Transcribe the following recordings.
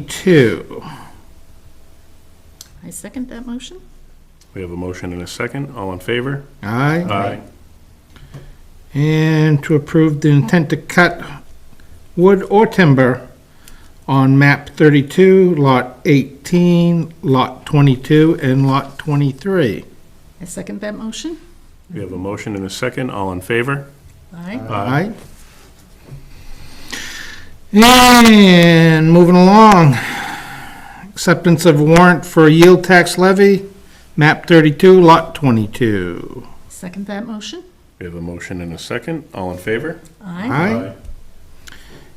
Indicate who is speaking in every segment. Speaker 1: 22.
Speaker 2: I second that motion.
Speaker 3: We have a motion and a second. All in favor?
Speaker 1: Aye. And to approve the intent to cut wood or timber on map 32, lot 18, lot 22, and lot 23.
Speaker 2: I second that motion.
Speaker 3: We have a motion and a second. All in favor?
Speaker 2: Aye.
Speaker 1: Aye. And moving along, acceptance of warrant for yield tax levy, map 32, lot 22.
Speaker 2: Second that motion.
Speaker 3: We have a motion and a second. All in favor?
Speaker 2: Aye.
Speaker 1: Aye.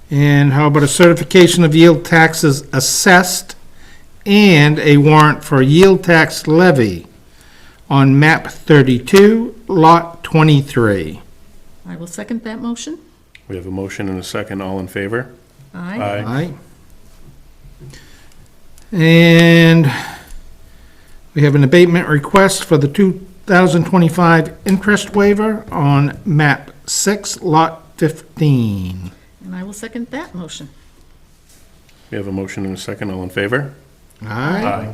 Speaker 1: And how about a certification of yield taxes assessed and a warrant for yield tax levy on map 32, lot 23?
Speaker 2: I will second that motion.
Speaker 3: We have a motion and a second. All in favor?
Speaker 2: Aye.
Speaker 1: Aye. And we have an abatement request for the 2025 interest waiver on map 6, lot 15.
Speaker 2: And I will second that motion.
Speaker 3: We have a motion and a second. All in favor?
Speaker 1: Aye.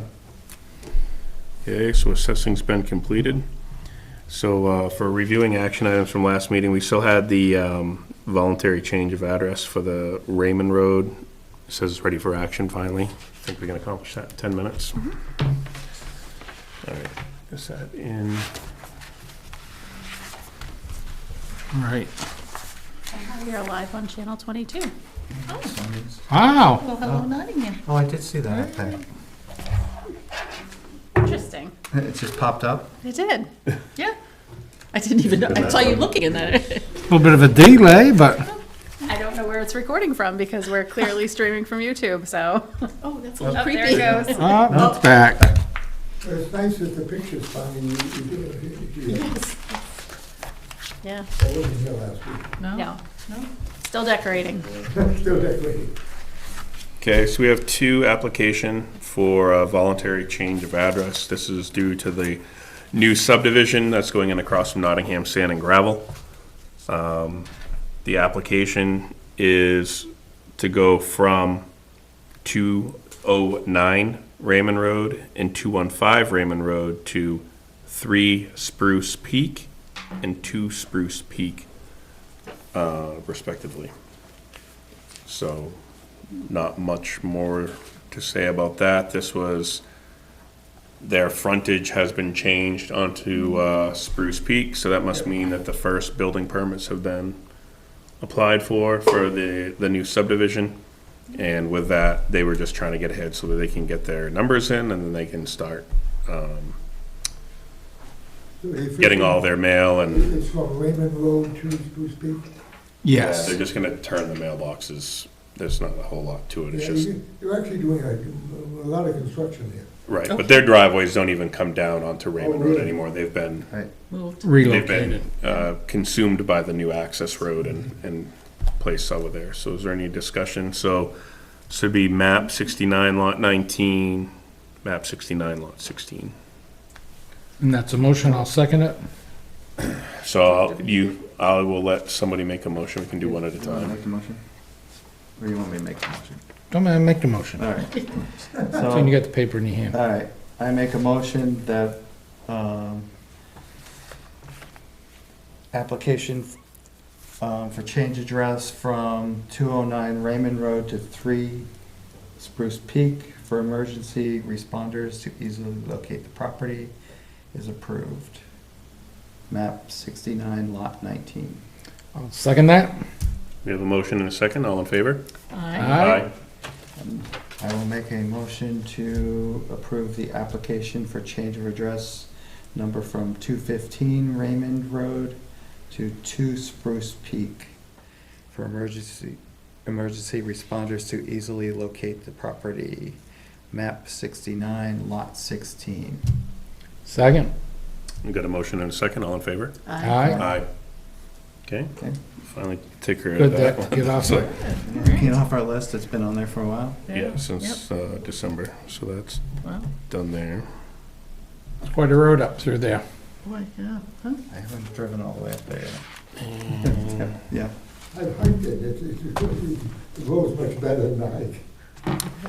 Speaker 3: Okay, so assessing's been completed. So uh, for reviewing action items from last meeting, we still had the um, voluntary change of address for the Raymond Road. Says it's ready for action finally. I think we can accomplish that in 10 minutes. All right, is that in?
Speaker 1: All right.
Speaker 2: You're live on Channel 22.
Speaker 1: Wow.
Speaker 2: Well, hello Nottingham.
Speaker 4: Oh, I did see that, I think.
Speaker 2: Interesting.
Speaker 4: It just popped up.
Speaker 2: I did. Yeah. I didn't even know, I saw you looking in that.
Speaker 1: A Little bit of a delay, but
Speaker 5: I don't know where it's recording from because we're clearly streaming from YouTube, so.
Speaker 2: Oh, that's a little
Speaker 5: Oh, there it
Speaker 2: creepy.
Speaker 5: goes.
Speaker 1: oh, it's back.
Speaker 6: Well, It's nice that the pictures finally, you you did it, You- you-
Speaker 2: Yeah.
Speaker 6: I wasn't here last week.
Speaker 5: No, still decorating.
Speaker 6: Still decorating.
Speaker 3: Okay, so we have two application for a voluntary change of address. This is due to the new subdivision that's going in across from Nottingham Sand and Gravel. Um, The application is to go from 209 Raymond Road and 215 Raymond Road to 3 Spruce Peak and 2 Spruce Peak uh, respectively. So not much more to say about that. This was, their frontage has been changed onto uh, Spruce Peak, so that must mean that the first building permits have been applied for, for the, the new subdivision. And with that, they were just trying to get ahead so that they can get their numbers in and then they can start
Speaker 6: So if
Speaker 3: getting all
Speaker 6: it-
Speaker 3: their mail and
Speaker 6: It's from Raymond Road to Spruce Peak.
Speaker 1: Yes.
Speaker 3: they're just gonna turn the mailboxes. There's not a whole lot to it, it's
Speaker 6: Yeah,
Speaker 3: just,
Speaker 6: you- You're actually doing a, a lot of construction there.
Speaker 3: right, but their driveways don't even come down onto Raymond Road
Speaker 6: Oh. really?
Speaker 3: anymore. They've been
Speaker 4: Right.
Speaker 2: Moved.
Speaker 3: They've
Speaker 1: Relocated.
Speaker 3: been uh, consumed by the new access road and, and placed over there. So is there any discussion? So, so it'd be map 69 lot 19, map 69 lot 16.
Speaker 1: And that's a motion, I'll second it.
Speaker 3: So I'll- you, I will let somebody make a motion, we can do one at a
Speaker 4: Do you want to
Speaker 3: time.
Speaker 4: make the motion? Or you want me to make the motion?
Speaker 1: Don't mind, make the motion.
Speaker 4: All right.
Speaker 1: So you
Speaker 4: So,
Speaker 1: got the paper in your hand.
Speaker 4: all right, I make a motion that, um, application, um, for change address from two oh nine Raymond Road to three Spruce Peak for emergency responders to easily locate the property is approved. Map sixty-nine, lot nineteen.
Speaker 1: I'll second that.
Speaker 3: We have a motion and a second, all in favor?
Speaker 2: Aye.
Speaker 1: Aye.
Speaker 4: I will make a motion to approve the application for change of address number from 215 Raymond Road to 2 Spruce Peak for emergency, emergency responders to easily locate the property. Map 69, Lot 16.
Speaker 1: Second.
Speaker 3: We got a motion and a second, all in favor?
Speaker 1: Aye.
Speaker 3: Aye. Okay,
Speaker 4: Okay,
Speaker 3: finally take care of
Speaker 1: Good
Speaker 3: that
Speaker 1: that,
Speaker 3: one.
Speaker 1: get off
Speaker 3: So-
Speaker 1: it.
Speaker 4: Get off our list, it's been on there for a while.
Speaker 3: Yeah, since uh, December, so that's
Speaker 2: Wow.
Speaker 3: done there.
Speaker 1: Quite a road up through there.
Speaker 2: Boy, yeah. huh?
Speaker 4: I haven't driven all the way up there yet. Yeah,
Speaker 6: I hiked it, it's, it's, the road's much better than I hike.